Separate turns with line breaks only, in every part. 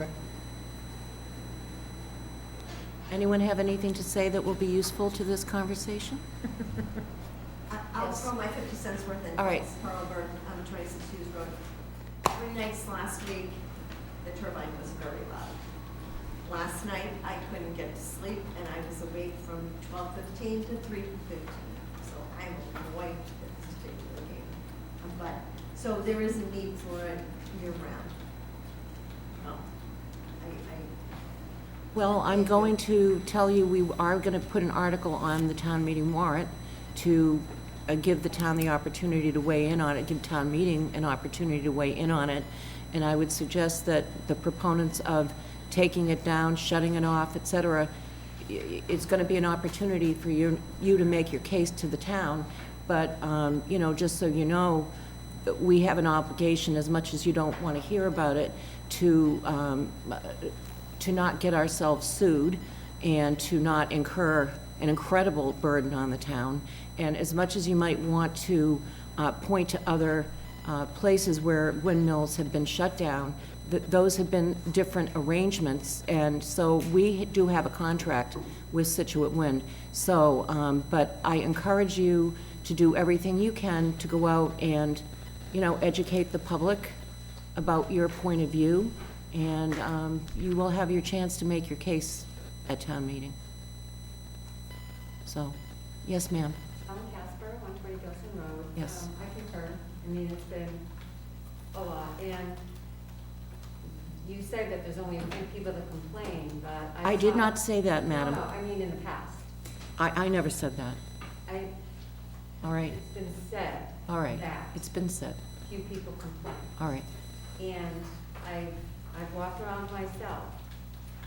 Okay.
Anyone have anything to say that will be useful to this conversation?
I- Uh, I'll
Yes.
throw my 50 cents worth in.
All right.
It's Carl Burton, um, 26 Hughes Road. Three nights last week, the turbine was very loud. Last night, I couldn't get to sleep, and I was awake from 12:15 to 3:15. So I'm wiped at this stage of the game. Um, But, so there is a need for it year-round. Um, I-
Well, I'm going to tell you, we are going to put an article on the town meeting warrant to uh, give the town the opportunity to weigh in on it, give town meeting an opportunity to weigh in on it. And I would suggest that the proponents of taking it down, shutting it off, et cetera, i- i- it's going to be an opportunity for you, you to make your case to the town. But, um, you know, just so you know, we have an obligation, as much as you don't want to hear about it, to, um, to not get ourselves sued and to not incur an incredible burden on the town. And as much as you might want to uh, point to other uh, places where windmills have been shut down, th- those have been different arrangements. And so we do have a contract with Situate Wind. So, um, but I encourage you to do everything you can to go out and, you know, educate the public about your point of view, and um, you will have your chance to make your case at town meeting. So, yes, ma'am.
Alan Casper, 120 Gilson Road.
Yes.
Um, I concur. I mean, it's been a lot, and you said that there's only a few people that complain, but I...
I did
saw-
not say that, madam.
No, no, I mean in the past.
I, I never said that.
I,
All right,
it's been said
all right.
that
It's been said.
few people complain.
All right.
And I, I've walked around myself.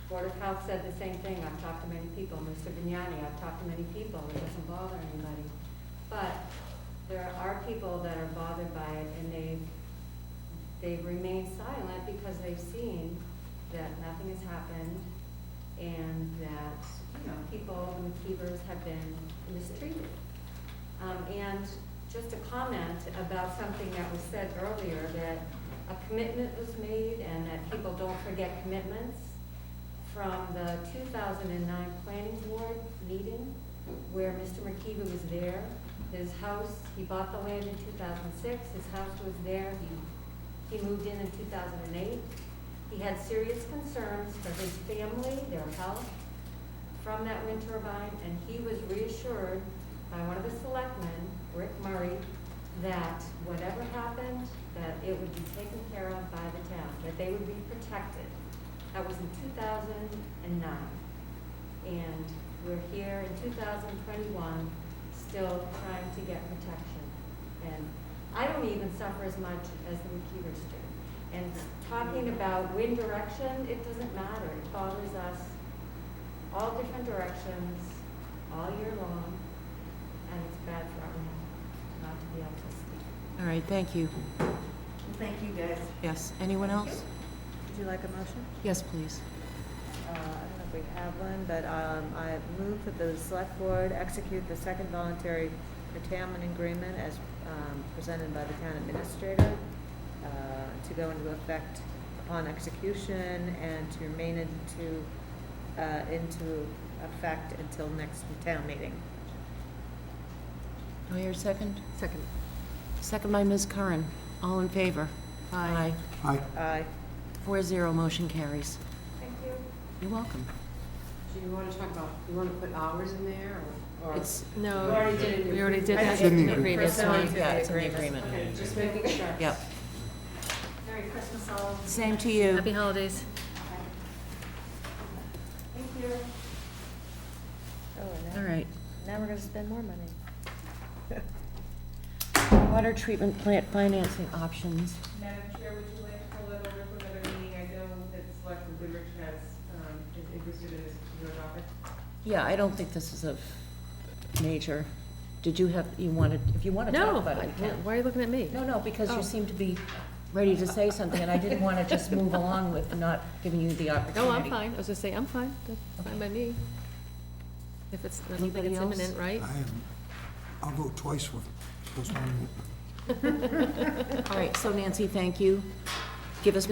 Board of Health said the same thing, I've talked to many people, Mr. Vignani, I've talked to many people, it doesn't bother anybody. But there are people that are bothered by it, and they, they remain silent because they've seen that nothing has happened, and that, you know, people, the McKeevers have been mistreated. Um, And just a comment about something that was said earlier, that a commitment was made and that people don't forget commitments from the 2009 Planning Board meeting where Mr. McKeever was there. His house, he bought the land in 2006, his house was there, he, he moved in in 2008. He had serious concerns for his family, their health, from that wind turbine, and he was reassured by one of the selectmen, Rick Murray, that whatever happened, that it would be taken care of by the town, that they would be protected. That was in two thousand and nine. And we're here in two thousand twenty-one, still trying to get protection. And I don't even suffer as much as the McKeevers do. And talking about wind direction, it doesn't matter, it bothers us all different directions, all year long, and it's bad for our health not to be able to speak.
All right, thank you.
I- Thank you, guys.
Yes, anyone else?
Would you like a motion?
Yes, please.
Uh, I don't know if we have one, but um, I move that the select board execute the second voluntary curtailment agreement as um, presented by the town administrator uh, to go into effect upon execution and to remain into, uh, into effect until next town meeting.
Do I hear a second?
Second.
Second by Ms. Curran. All in favor? Aye.
Aye.
Aye.
Four zero, motion carries.
Thank you.
You're welcome.
So you want to talk about, you want to put hours in there or? or-
It's,
You
No,
already did it.
we already did
I
that
didn't even-
previously.
yeah, it's in the agreement.
Okay, just making sure.
Yep.
Merry Christmas all.
Same to you.
Happy holidays.
Thank you.
Oh, and
All
now-
right.
Now we're gonna spend more money.
Water treatment plant financing options.
Madam Chair, would you like to pull that over from another meeting? I know that Selectman Goodrich has, um, is interested in this particular topic.
Yeah, I don't think this is of major, did you have, you wanted, if you want to talk
No,
about it, we can.
why are you looking at me?
No, no, because you
Oh.
seem to be ready to say something, and I didn't want to just move along with not giving you the opportunity.
No, I'm fine, I was just saying, I'm fine, that's fine by me. If it's, I don't think
Anybody
it's
else?
imminent, right?
I am, I'll vote twice with postponement.
All right, so Nancy, thank you. Give us